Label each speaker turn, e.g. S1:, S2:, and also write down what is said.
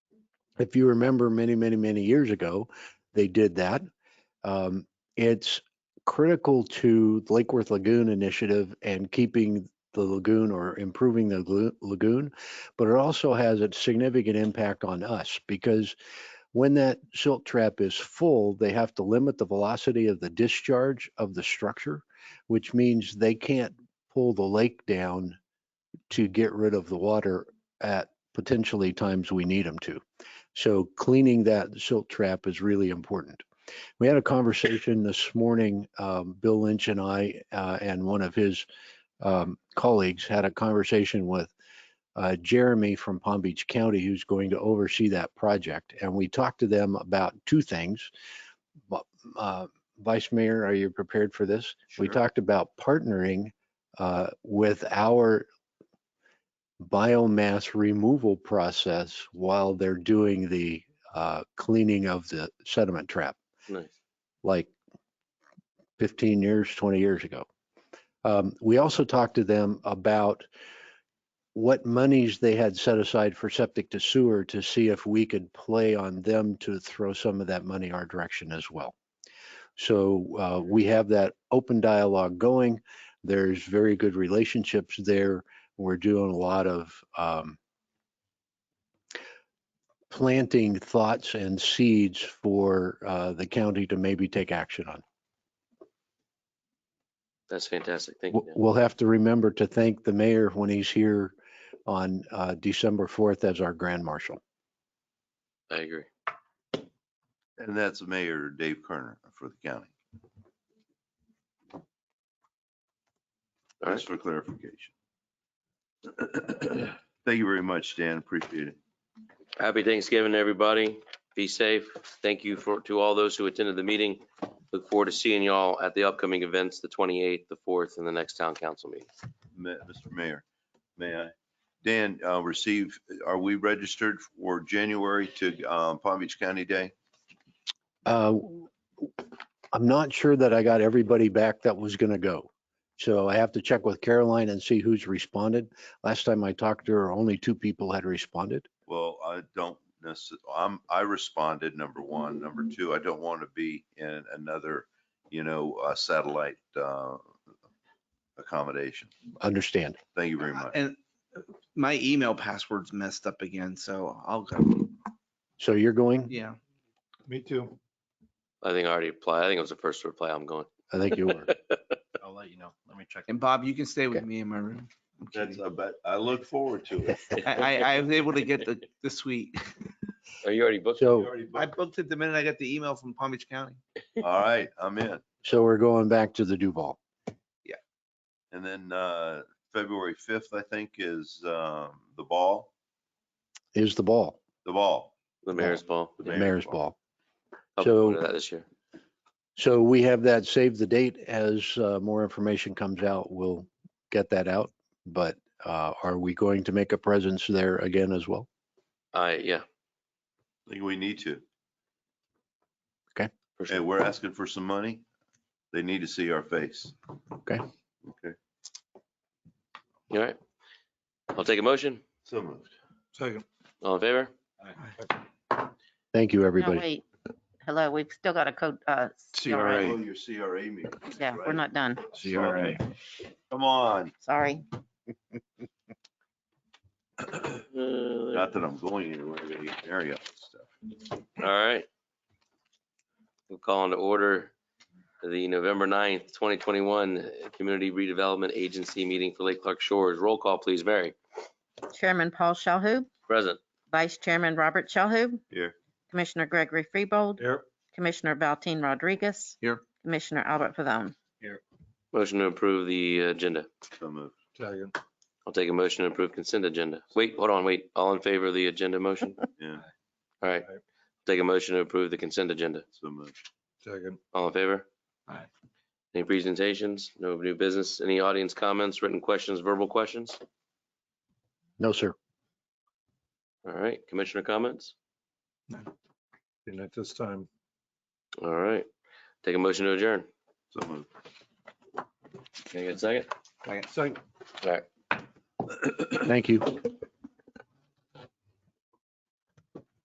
S1: If you remember many, many, many years ago, they did that. Um, it's critical to the Lake Worth Lagoon initiative and keeping the lagoon or improving the glu- lagoon, but it also has a significant impact on us because when that silt trap is full, they have to limit the velocity of the discharge of the structure, which means they can't pull the lake down to get rid of the water at potentially times we need them to. So cleaning that silt trap is really important. We had a conversation this morning, um, Bill Lynch and I, uh, and one of his um, colleagues had a conversation with uh, Jeremy from Palm Beach County, who's going to oversee that project. And we talked to them about two things. Bu- uh, Vice Mayor, are you prepared for this? We
S2: Sure.
S1: talked about partnering uh, with our biomass removal process while they're doing the uh, cleaning of the sediment trap
S2: Nice.
S1: like 15 years, 20 years ago. Um, we also talked to them about what monies they had set aside for septic to sewer to see if we could play on them to throw some of that money our direction as well. So uh, we have that open dialogue going. There's very good relationships there. We're doing a lot of um, planting thoughts and seeds for uh, the county to maybe take action on.
S2: That's fantastic. Thank you.
S1: W-
S2: Dan.
S1: We'll have to remember to thank the mayor when he's here on uh, December 4th as our grand marshal.
S2: I agree.
S3: And that's Mayor Dave Kerner for the county,
S2: All
S3: just
S2: right.
S3: for clarification. Thank you very much, Dan. Appreciate it.
S2: Happy Thanksgiving, everybody. Be safe. Thank you for, to all those who attended the meeting. Look forward to seeing y'all at the upcoming events, the 28th, the 4th, and the next town council meeting.
S3: Ma- Mr. Mayor, may I? Dan, uh, receive, are we registered for January to, um, Palm Beach County Day?
S1: Uh, I'm not sure that I got everybody back that was going to go. So I have to check with Caroline and see who's responded. Last time I talked to her, only two people had responded.
S3: Well, I don't necessarily, I'm, I responded, number one. Number two, I don't want to be in another, you know, uh, satellite, uh, accommodation.
S1: Understand.
S3: Thank you very much.
S4: And my email password's messed up again, so I'll go.
S1: So you're going?
S4: Yeah.
S5: Me too.
S2: I think I already applied. I think it was the first reply. I'm going.
S1: I think you were.
S5: I'll let you know. Let me check.
S4: And Bob, you can stay with
S1: Okay.
S4: me in my room. I'm
S3: That's,
S4: kidding.
S3: I bet, I look forward to it.
S4: I, I, I was able to get the, the suite.
S2: Are Oh, you already booked?
S1: So,
S4: I booked it the minute I got the email from Palm Beach County.
S3: All right, I'm in.
S1: so we're going back to the Duval.
S3: And then uh, February 5th, I think, is um, the ball,
S1: Is the ball,
S3: the ball.
S2: The mayor's ball.
S3: The
S1: uh, the
S3: Mayor's
S1: mayor's
S3: ball.
S1: ball.
S2: I'll be
S1: So-
S2: going to that this year.
S1: So we have that save the date as uh, more information comes out, we'll get that out. But uh, are we going to make a presence there again as well?
S2: I, yeah,
S3: I think we need to.
S2: for sure.
S3: And we're asking for some money. They need to see our face.
S1: Okay.
S3: Okay,
S2: All right. I'll take a motion.
S3: so moved.
S5: Second.
S2: All in favor?
S1: Thank you,
S6: No,
S1: everybody.
S6: wait. Hello, we've still got a code, uh, CRA.
S3: Oh, your CRA meeting.
S6: Yeah, we're
S3: right.
S6: not done.
S3: CRA. Come on,
S6: Sorry.
S2: Uh,
S3: not that I'm going anywhere, but you carry up stuff.
S2: All right. We'll call into order the November 9th, 2021 Community Redevelopment Agency meeting for Lake Clark Shores. Roll call, please. Mary,
S6: Chairman Paul Shalhoub,
S2: present.
S6: Vice Chairman Robert Shalhoub.
S3: Here.
S6: Commissioner Gregory Freebold,
S5: Here.
S6: Commissioner Valteen Rodriguez.
S4: Here.
S6: Commissioner Albert Pavone.
S2: Motion to approve the agenda.
S3: So moved.
S5: Second.
S2: I'll take a motion to approve consent agenda. Wait, hold on, wait. All in favor of the agenda motion?
S3: Yeah,
S2: All right.
S5: Aye.
S2: Take a motion to approve the consent agenda.
S3: so moved.
S5: Second.
S2: All in favor?
S5: Aye.
S2: Any presentations? No new business? Any audience comments, written questions, verbal questions?
S1: No, sir.
S2: All right, commissioner comments?
S5: And at this time,
S2: All right. Take a motion to adjourn.
S3: So moved.
S2: Can I get a second?
S5: second.
S2: All right.
S1: Thank you.